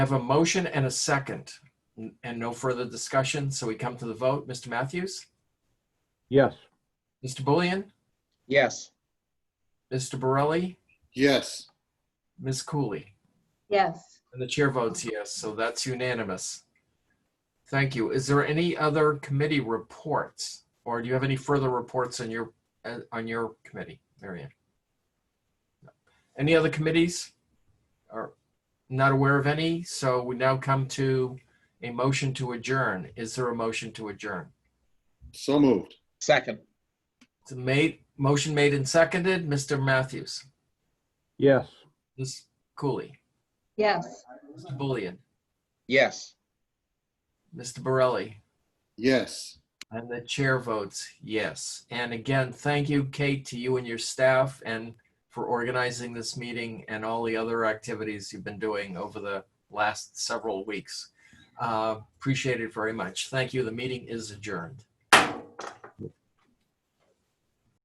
have a motion and a second n- and no further discussion. So we come to the vote. Mr. Matthews? Yes. Mr. Bullion? Yes. Mr. Borelli? yes, Ms. Cooley? yes. And the chair votes yes, so that's unanimous. Thank you. Is there any other committee reports? Or do you have any further reports on your, uh, on your committee, Marion? Any other committees? Or not aware of any, so we now come to a motion to adjourn. Is there a motion to adjourn? so moved. Second. It's made, motion made and seconded. Mr. Matthews, Yes. Ms. Cooley, Yes. Mr. Bullion, Yes. Mr. Borelli, Yes, And the chair votes yes. And again, thank you, Kate, to you and your staff and for organizing this meeting and all the other activities you've been doing over the last several weeks. Uh, Appreciate it very much. Thank you. The meeting is adjourned.